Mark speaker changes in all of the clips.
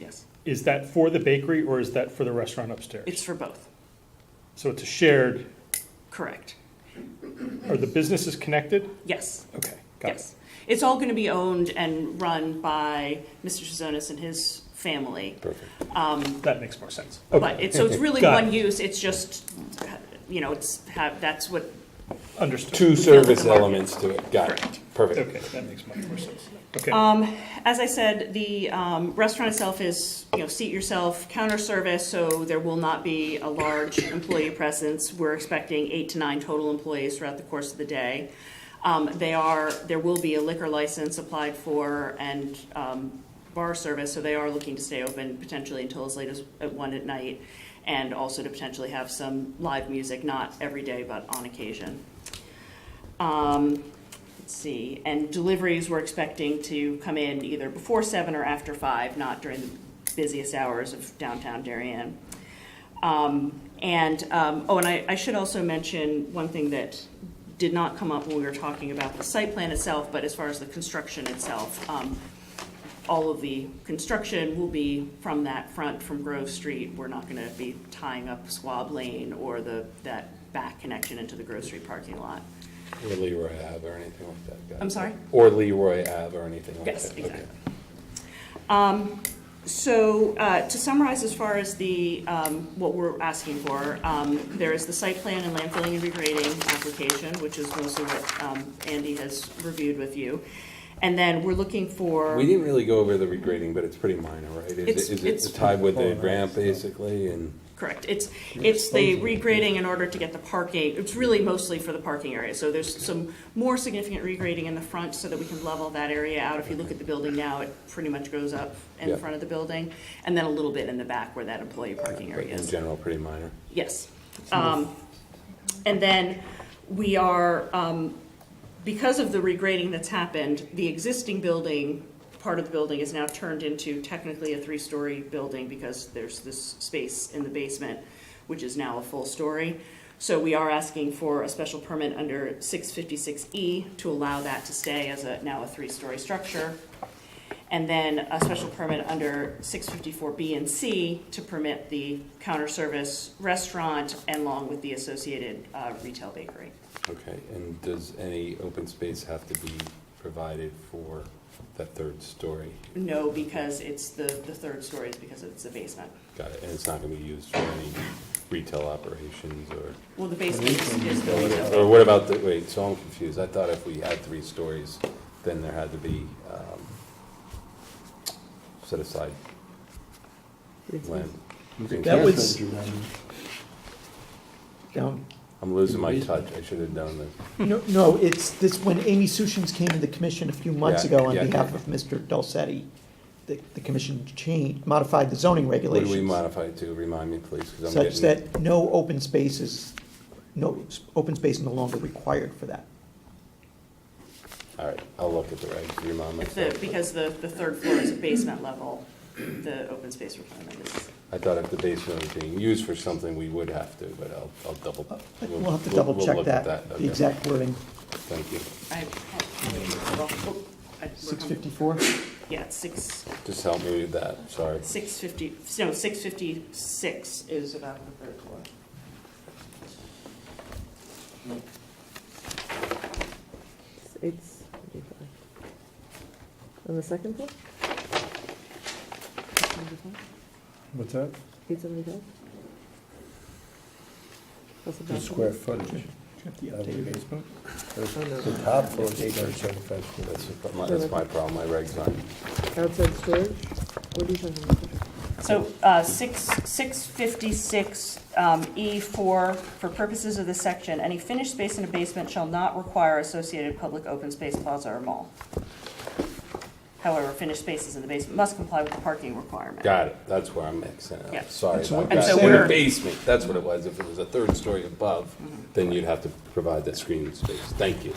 Speaker 1: Yes,
Speaker 2: Is that for the bakery or is that for the restaurant upstairs?
Speaker 1: it's for both,
Speaker 2: So it's a shared,
Speaker 1: correct.
Speaker 2: are the businesses connected?
Speaker 1: Yes,
Speaker 2: Okay, got it.
Speaker 1: yes. It's all going to be owned and run by Mr. Shazonis and his family.
Speaker 2: Perfect. That makes more sense.
Speaker 1: But
Speaker 2: Okay,
Speaker 1: it's, so it's really
Speaker 2: Got
Speaker 1: one
Speaker 2: it.
Speaker 1: use, it's just, you know, it's, have that's what,
Speaker 2: understood.
Speaker 3: Two service
Speaker 1: the market.
Speaker 3: elements to it, got it,
Speaker 1: Correct.
Speaker 3: perfect.
Speaker 2: Okay, that makes much more sense. Okay,
Speaker 1: as I said, the um, restaurant itself is, you know, seat yourself, counter service, so there will not be a large employee presence. We're expecting eight to nine total employees throughout the course of the day. Um, They are, there will be a liquor license applied for and um, bar service, so they are looking to stay open potentially until as late as at one at night, and also to potentially have some live music, not every day, but on occasion. Um, Let's see, and deliveries we're expecting to come in either before seven or after five, not during the busiest hours of downtown Darien. Um, and, um, oh, and I, I should also mention one thing that did not come up when we were talking about the site plan itself, but as far as the construction itself, um, all of the construction will be from that front, from Grove Street. We're not gonna be tying up Swab Lane or the, that back connection into the Grove Street parking lot.
Speaker 3: Or Leroy Ave or anything like that. got it.
Speaker 1: I'm sorry?
Speaker 3: Or Leroy Ave or anything like that.
Speaker 1: Yes,
Speaker 3: okay.
Speaker 1: exactly. Um, So uh, to summarize, as far as the, um, what we're asking for, um, there is the site plan and landfilling and regrading application, which is mostly what um, Andy has reviewed with you. And then we're looking for,
Speaker 3: We didn't really go over the regrading, but it's pretty minor, right? Is it-
Speaker 1: It's-
Speaker 3: Is
Speaker 1: it's-
Speaker 3: it tied with the ramp, basically, and?
Speaker 1: correct, it's, it's the regrading in order to get the parking, it's really mostly for the parking area. So there's some more significant regrading in the front so that we can level that area out. If you look at the building now, it pretty much goes up in
Speaker 3: Yeah.
Speaker 1: front of the building, and then a little bit in the back where that employee parking
Speaker 3: but
Speaker 1: area is.
Speaker 3: In general, pretty minor.
Speaker 1: Yes. Um, And then we are, um, because of the regrading that's happened, the existing building, part of the building is now turned into technically a three-story building because there's this space in the basement, which is now a full story. So we are asking for a special permit under 656E to allow that to stay as a, now a three-story structure. And then a special permit under 654B and C to permit the counter service restaurant and along with the associated uh, retail bakery.
Speaker 3: Okay, and does any open space have to be provided for that third story?
Speaker 1: No, because it's the, the third story is because it's the basement.
Speaker 3: Got it, and it's not gonna be used for any retail operations or?
Speaker 1: Well, the basement is, is the retail.
Speaker 3: Or what about the, wait, so I'm confused. I thought if we had three stories, then there had to be um, set aside land.
Speaker 4: That
Speaker 5: That's
Speaker 4: was-
Speaker 5: what you done.
Speaker 4: Um,
Speaker 3: I'm losing my touch. I should have done this.
Speaker 4: No, no, it's this, when Amy Sushin's came to the commission a few months
Speaker 3: Yeah,
Speaker 4: ago on
Speaker 3: yeah,
Speaker 4: behalf
Speaker 3: yeah.
Speaker 4: of Mr. Dulcetti, the, the commission changed, modified the zoning
Speaker 3: What do we
Speaker 4: regulations
Speaker 3: modify it to? Remind me, please, because I'm
Speaker 4: such
Speaker 3: getting.
Speaker 4: that no open spaces, no, s- open space no longer required for that.
Speaker 3: All right, I'll look at the regs, remind
Speaker 1: It's the,
Speaker 3: myself.
Speaker 1: because the, the third floor is a basement level, the open space requirement is.
Speaker 3: I thought if the basement was being used for something, we would have to, but I'll, I'll double. we'll-
Speaker 4: Uh, We'll have to
Speaker 3: we'll-
Speaker 4: double
Speaker 3: we'll
Speaker 4: check
Speaker 3: look at
Speaker 4: that, the
Speaker 3: Okay,
Speaker 4: exact wording.
Speaker 3: Thank you.
Speaker 1: I- oh, I-
Speaker 4: Six fifty-four?
Speaker 1: Yeah, it's six,
Speaker 3: Just help me with that, sorry.
Speaker 1: six fifty, no, six fifty-six is about the third floor.
Speaker 6: It's thirty-five. On the second floor?
Speaker 5: What's that?
Speaker 6: Eight seventy-five? That's
Speaker 5: The
Speaker 6: about
Speaker 5: square footage of the basement? The top floor is eight hundred seventy-five square.
Speaker 3: That's my, that's my problem, my regs aren't.
Speaker 6: Outside storage? What are you talking about?
Speaker 1: So uh, six 656E4, for purposes of this section, any finished space in a basement shall not require associated public open space plaza or mall. However, finished spaces in the basement must comply with the parking requirement.
Speaker 3: Got it, that's where I'm mixing it
Speaker 1: Yeah.
Speaker 3: up, sorry
Speaker 4: That's what
Speaker 3: about
Speaker 4: I'm
Speaker 3: that.
Speaker 1: saying.
Speaker 3: In the
Speaker 1: We're-
Speaker 3: basement, that's what it was, if it was a third story above, then you'd have to provide that screening space, thank you.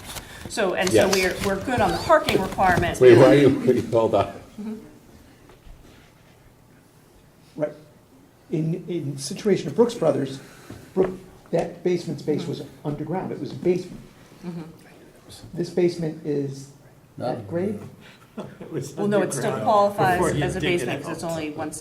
Speaker 1: So, and so
Speaker 3: Yes.
Speaker 1: we're, we're good on the parking requirement.
Speaker 3: Wait, why are you, wait, hold on,
Speaker 4: Right. In, in situation of Brooks Brothers, Brook, that basement space was underground, it was a basement. This basement is that grade?
Speaker 1: Well, no, it still qualifies as a basement because it's only one